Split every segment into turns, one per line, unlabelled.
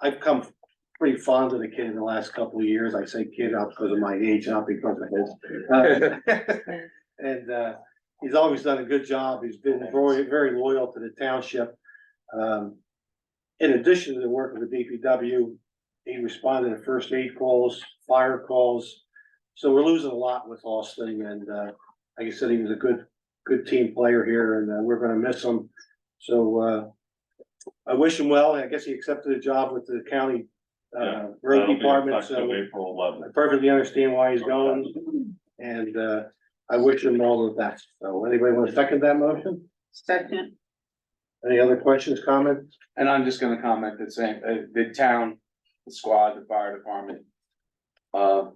I've come pretty fond of the kid in the last couple of years. I say kid not because of my age, not because of his. Uh, And, uh, he's always done a good job. He's been very, very loyal to the township. Um, in addition to the work of the DPW, he responded to first aid calls, fire calls. So we're losing a lot with Austin and, uh, like I said, he was a good, good team player here and, uh, we're gonna miss him. So, uh, I wish him well. I guess he accepted a job with the county, uh,
Yeah,
road
That'll be
department,
effective
so.
April eleventh.
I perfectly understand why he's going, and uh, I wish him all the best. So anybody want to second that motion?
Second,
Any other questions, comments?
And I'm just gonna comment the same, uh, the town, the squad, the fire department. Uh,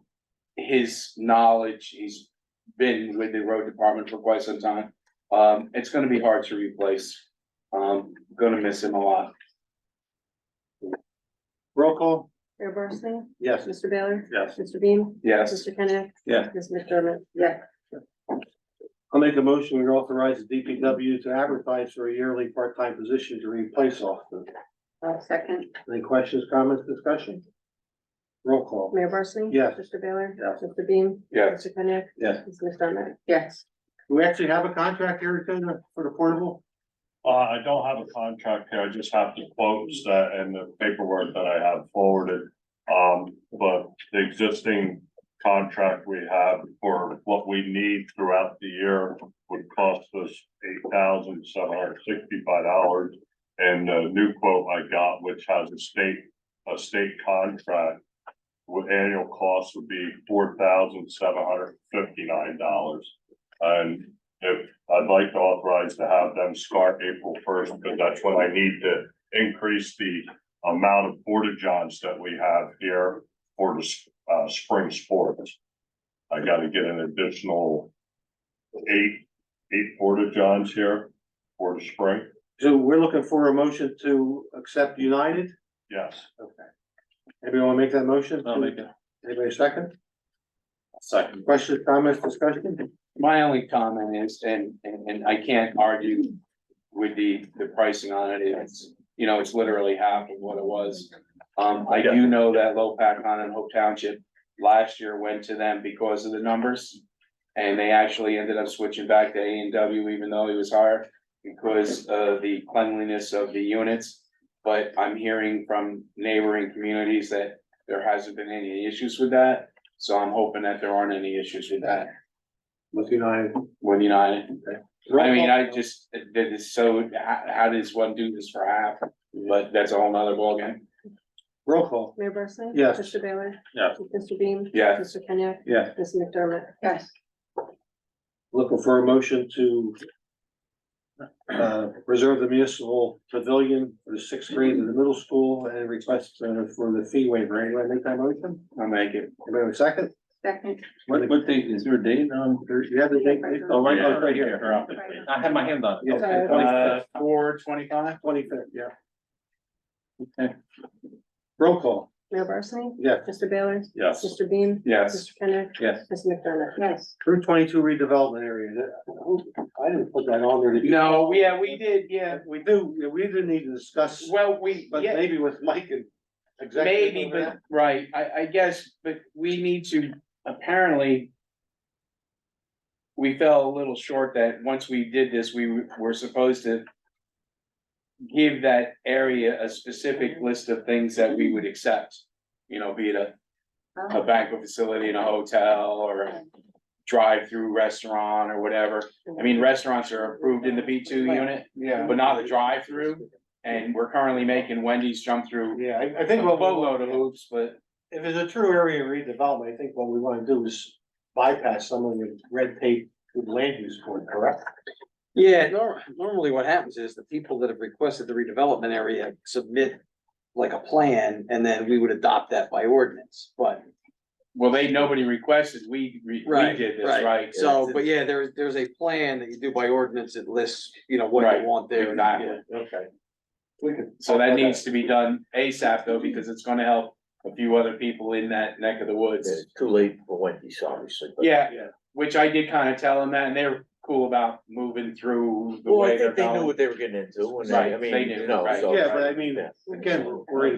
his knowledge, he's been with the road department for quite some time. Um, it's gonna be hard to replace. Um, gonna miss him a lot.
Roll call?
Mayor Barsney?
Yes.
Mr. Baylor?
Yes.
Mr. Beam?
Yes,
Mr. Kenneth?
Yeah.
Ms. McDermott?
yeah,
I'll make a motion, we authorize the DPW to advertise for a yearly part-time position to replace Austin.
I'll second,
Any questions, comments, discussion? Roll call?
Mayor Barsney?
Yes.
Mr. Baylor?
Yes.
Mr. Beam?
yes.
Mr. Kenneth?
Yes.
Ms. McDermott?
yes,
Do we actually have a contract here Tina, for the portable?
Uh, I don't have a contract here, I just have the quotes that and the paperwork that I have forwarded. Um, but the existing contract we have for what we need throughout the year would cost us eight thousand seven hundred sixty-five dollars. And the new quote I got, which has a state, a state contract, with annual cost would be four thousand seven hundred fifty-nine dollars. And if I'd like to authorize to have them start April first, because that's when I need to increase the amount of porta johns that we have here for the, s- uh, spring sports. I gotta get an additional eight, eight porta johns here for the spring,
So we're looking for a motion to accept United.
yes.
Anybody want to make that motion?
it.
Anybody second?
Second.
Questions, comments, discussion?
My only comment is, and, and, and I can't argue with the, the pricing on it, it's, you know, it's literally half of what it was. Um, I do know that Low Pack on and Hope Township last year went to them because of the numbers. And they actually ended up switching back to A and W even though it was higher because of the cleanliness of the units. But I'm hearing from neighboring communities that there hasn't been any issues with that, so I'm hoping that there aren't any issues with that
With United.
with United.
Roll
I mean,
call?
I just, that is so, how, how does one do this for half? But that's a whole nother ballgame.
Roll call?
Mayor Barsney?
Yes.
Mr. Baylor?
Yes.
Mr. Beam?
Yes.
Mr. Kenneth?
Yes.
Ms. McDermott?
yes,
Looking for a motion to uh, reserve the municipal pavilion for the sixth grade in the middle school and request uh, for the fee waiver. Anybody make that motion?
I'll make it.
Anybody have a second?
second.
What, what date, is there a date on? You have the date, oh, right, oh, it's right here.
I had my hand on it.
Yeah,
Uh, four twenty-five?
Twenty-fifth, yeah. Okay. Roll call,
Mayor Barsney?
yeah.
Mr. Baylor?
Yes.
Mr. Beam?
Yes.
Mr. Kenneth?
Yes.
Ms. McDermott?
Yes,
Route twenty-two redevelopment area. That- who- I didn't put that on there. Did you?
No, yeah, we did, yeah.
We do, we do need to discuss,
Well, we,
but
yeah,
maybe with Mike and. executive
maybe,
over that.
but, right, I, I guess, but we need to, apparently. We fell a little short that once we did this, we were supposed to. Give that area a specific list of things that we would accept, you know, be it a a
oh,
banquet facility in a hotel or a drive-through restaurant or whatever. I mean, restaurants are approved in the B two unit,
Yeah.
but not the drive-through. And we're currently making Wendy's jump through
Yeah, I, I
a
think what,
boatload
we-
of hoops, but
if it's a true area redevelopment, I think what we wanna do is bypass some of the red tape with land use code, correct?
Yeah, nor- normally what happens is the people that have requested the redevelopment area submit like a plan and then we would adopt that by ordinance, but.
well, they, nobody requested, we, we we
Right,
did this,
right.
right?
So, but yeah, there's, there's a plan that you do by ordinance. It lists, you know, what
Right,
you want there.
exactly.
Okay. We could.
So that needs to be done ASAP though, because it's gonna help a few other people in that neck of the woods.
It's too late for Wendy's, obviously, but.
Yeah,
Yeah.
which I did kind of tell them that, and they're cool about moving through the
Well, I
way they're
think they knew
going.
what they were getting into, and
Right,
they, I
they
mean,
knew,
you know,
right.
so.
Yeah, but I mean,
Yeah.
again, we're in